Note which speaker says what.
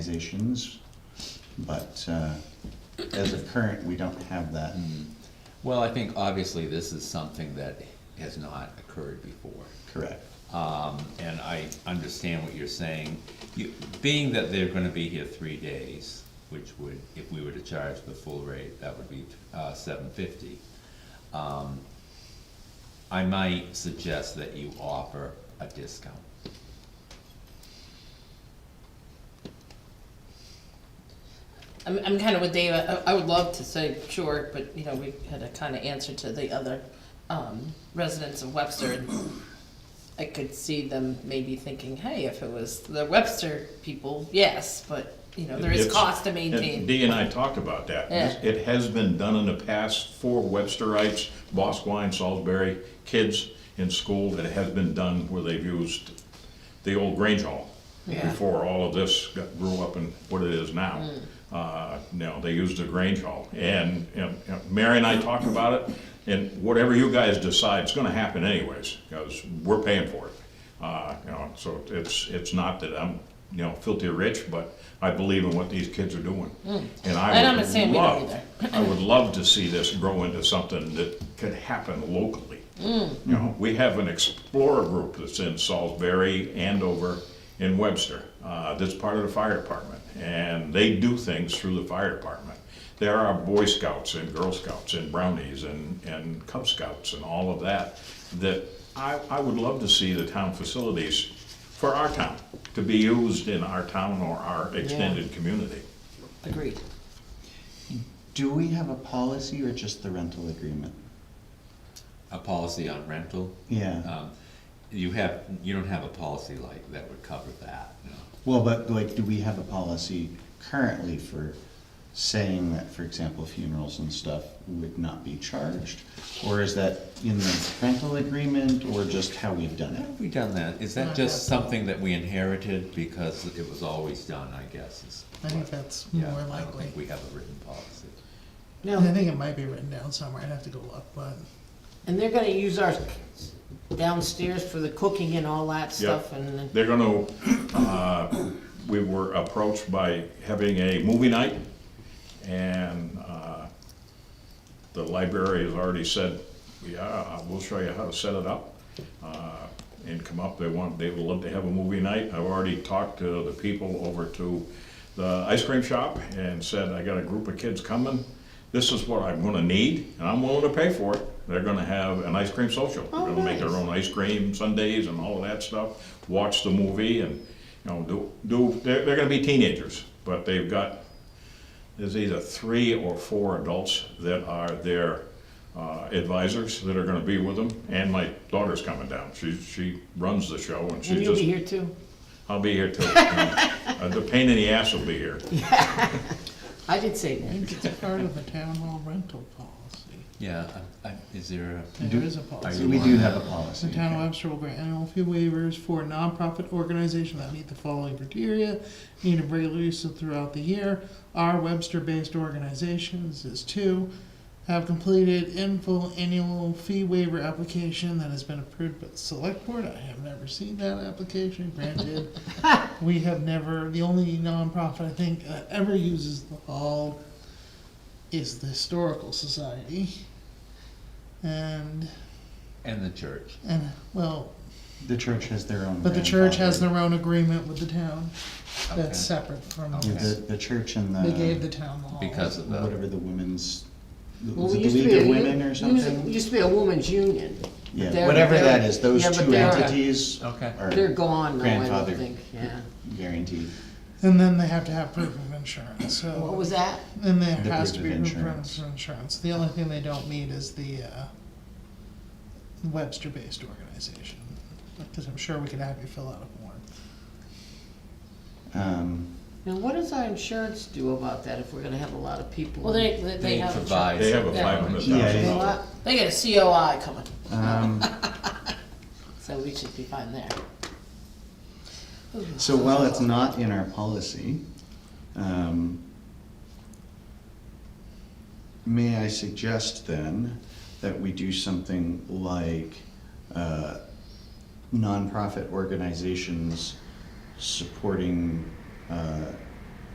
Speaker 1: organizations, but uh, as of current, we don't have that.
Speaker 2: Well, I think obviously this is something that has not occurred before.
Speaker 1: Correct.
Speaker 2: Um, and I understand what you're saying. You, being that they're gonna be here three days, which would, if we were to charge the full rate, that would be, uh, seven fifty. Um, I might suggest that you offer a discount.
Speaker 3: I'm, I'm kind of with Dave, I, I would love to say sure, but, you know, we had a kind of answer to the other, um, residents of Webster. and I could see them maybe thinking, hey, if it was the Webster people, yes, but, you know, there is
Speaker 4: It's-
Speaker 3: cost to
Speaker 4: and
Speaker 3: maintain.
Speaker 4: Dee and I talked about that.
Speaker 3: Yeah.
Speaker 4: It has been done in the past for Websterites, Bosquen, Salisbury, kids in school, that it has been done where they've used the old Grange Hall
Speaker 3: Yeah. Mm.
Speaker 4: before all of this got- grew up in what it is now. Uh, No, they used the Grange Hall. And, and and Mary and I talked about it, and whatever you guys decide, it's gonna happen anyways, because we're paying for it. Uh, You know, so it's, it's not that I'm, you know, filthy rich, but I believe in what these kids are doing. And
Speaker 3: And
Speaker 4: I
Speaker 3: I'm not
Speaker 4: would
Speaker 3: saying we Mm. don't
Speaker 4: love, I would love to see this grow into something that could happen locally. You know, we have an explorer group that's in Salisbury, Andover, and Webster, uh, that's part of the fire department. And they do things through the fire department. There are Boy Scouts and Girl Scouts and Brownies and, and Cub Scouts and all of that, that I, I would love to see the town facilities for our town, to be used in our town or our extended community.
Speaker 3: Agreed.
Speaker 1: Do we have a policy or just the rental agreement?
Speaker 2: A policy on rental,
Speaker 1: Yeah.
Speaker 2: um, you have, you don't have a policy like that would cover that, no.
Speaker 1: Well, but like, do we have a policy currently for saying that, for example, funerals and stuff would not be charged? Or is that in the rental agreement or just how we've done
Speaker 2: How
Speaker 1: it?
Speaker 2: have we done that? Is that
Speaker 5: Not
Speaker 2: just
Speaker 5: that.
Speaker 2: something that we inherited because it was always done, I guess, is.
Speaker 5: I think
Speaker 2: what-
Speaker 5: that's
Speaker 2: Yeah,
Speaker 5: more
Speaker 2: I don't
Speaker 5: likely.
Speaker 2: think we have a written policy.
Speaker 5: No, I think it might be written down somewhere, I'd have to go look, but
Speaker 6: And they're gonna use our downstairs for the cooking and all that stuff and,
Speaker 4: They're gonna, uh, we were approached by having a movie night, and uh, the library has already said, yeah, we'll show you how to set it up. uh, And come up, they want, they would love to have a movie night. I've already talked to the people over to the ice cream shop and said, I got a group of kids coming. This is what I'm gonna need, and I'm willing to pay for it. They're gonna have an ice cream social. They're gonna make their own ice cream sundaes and all of that stuff, watch the movie and, you know, do, do, they're, they're gonna be teenagers, but they've got, there's either three or four adults that are their uh, advisors that are gonna be with them, and my daughter's coming down. She, she runs the show and
Speaker 6: and
Speaker 4: she's
Speaker 6: you'll be
Speaker 4: just,
Speaker 6: here too.
Speaker 4: I'll be here too. Uh, The pain in the ass will be here.
Speaker 6: I did say
Speaker 5: I
Speaker 6: that.
Speaker 5: think it's a part of the town hall rental policy.
Speaker 2: Yeah, I- I- is there a,
Speaker 5: There is a
Speaker 2: Are
Speaker 5: policy.
Speaker 2: you-
Speaker 1: We do have a policy.
Speaker 5: The town of
Speaker 1: okay.
Speaker 5: Webster will grant annual fee waivers for nonprofit organizations that meet the following criteria, need a regular use throughout the year, are Webster-based organizations is two, have completed in full annual fee waiver application that has been approved by the select board, I have never seen that application granted. We have never, the only nonprofit I think that ever uses the hall is the Historical Society. And,
Speaker 2: and the church?
Speaker 5: and, well,
Speaker 1: The church has their own.
Speaker 5: but the church has
Speaker 1: grandfather.
Speaker 5: their own agreement with the town
Speaker 2: Okay.
Speaker 5: that's separate from,
Speaker 2: Okay.
Speaker 1: The, the church and the.
Speaker 5: they gave the town the hall.
Speaker 2: Because of the,
Speaker 1: Whatever the women's,
Speaker 6: Well,
Speaker 1: was
Speaker 6: we
Speaker 1: it the
Speaker 6: used to be
Speaker 1: League of
Speaker 6: a-
Speaker 1: Women or
Speaker 6: used-
Speaker 1: something?
Speaker 6: Used to be a women's union.
Speaker 1: Yeah,
Speaker 6: They're-
Speaker 1: whatever
Speaker 6: they're-
Speaker 1: that is, those
Speaker 6: yeah, but
Speaker 1: two
Speaker 6: they're-
Speaker 1: entities
Speaker 2: Okay.
Speaker 6: They're
Speaker 1: are
Speaker 6: gone now, I
Speaker 1: Grandfather.
Speaker 6: don't think, yeah.
Speaker 1: guaranteed.
Speaker 5: And then they have to have proof of insurance,
Speaker 6: What
Speaker 5: so,
Speaker 6: was that?
Speaker 5: and there
Speaker 1: The
Speaker 5: has to
Speaker 1: proof
Speaker 5: be
Speaker 1: of
Speaker 5: proof of
Speaker 1: insurance.
Speaker 5: insurance. The only thing they don't need is the, uh, Webster-based organization, because I'm sure we could have you fill out a form.
Speaker 1: Um,
Speaker 6: Now, what does our insurance do about that if we're gonna have a lot of people?
Speaker 3: Well, they, they- they
Speaker 2: they
Speaker 3: have,
Speaker 2: provide.
Speaker 4: They have a
Speaker 2: some
Speaker 4: five hundred
Speaker 2: coverage.
Speaker 1: Yeah,
Speaker 4: thousand
Speaker 6: A
Speaker 4: dollar.
Speaker 6: lot,
Speaker 3: they get a COI coming,
Speaker 1: um,
Speaker 3: so we should be fine there.
Speaker 1: So while it's not in our policy, um, may I suggest then that we do something like uh, nonprofit organizations supporting uh,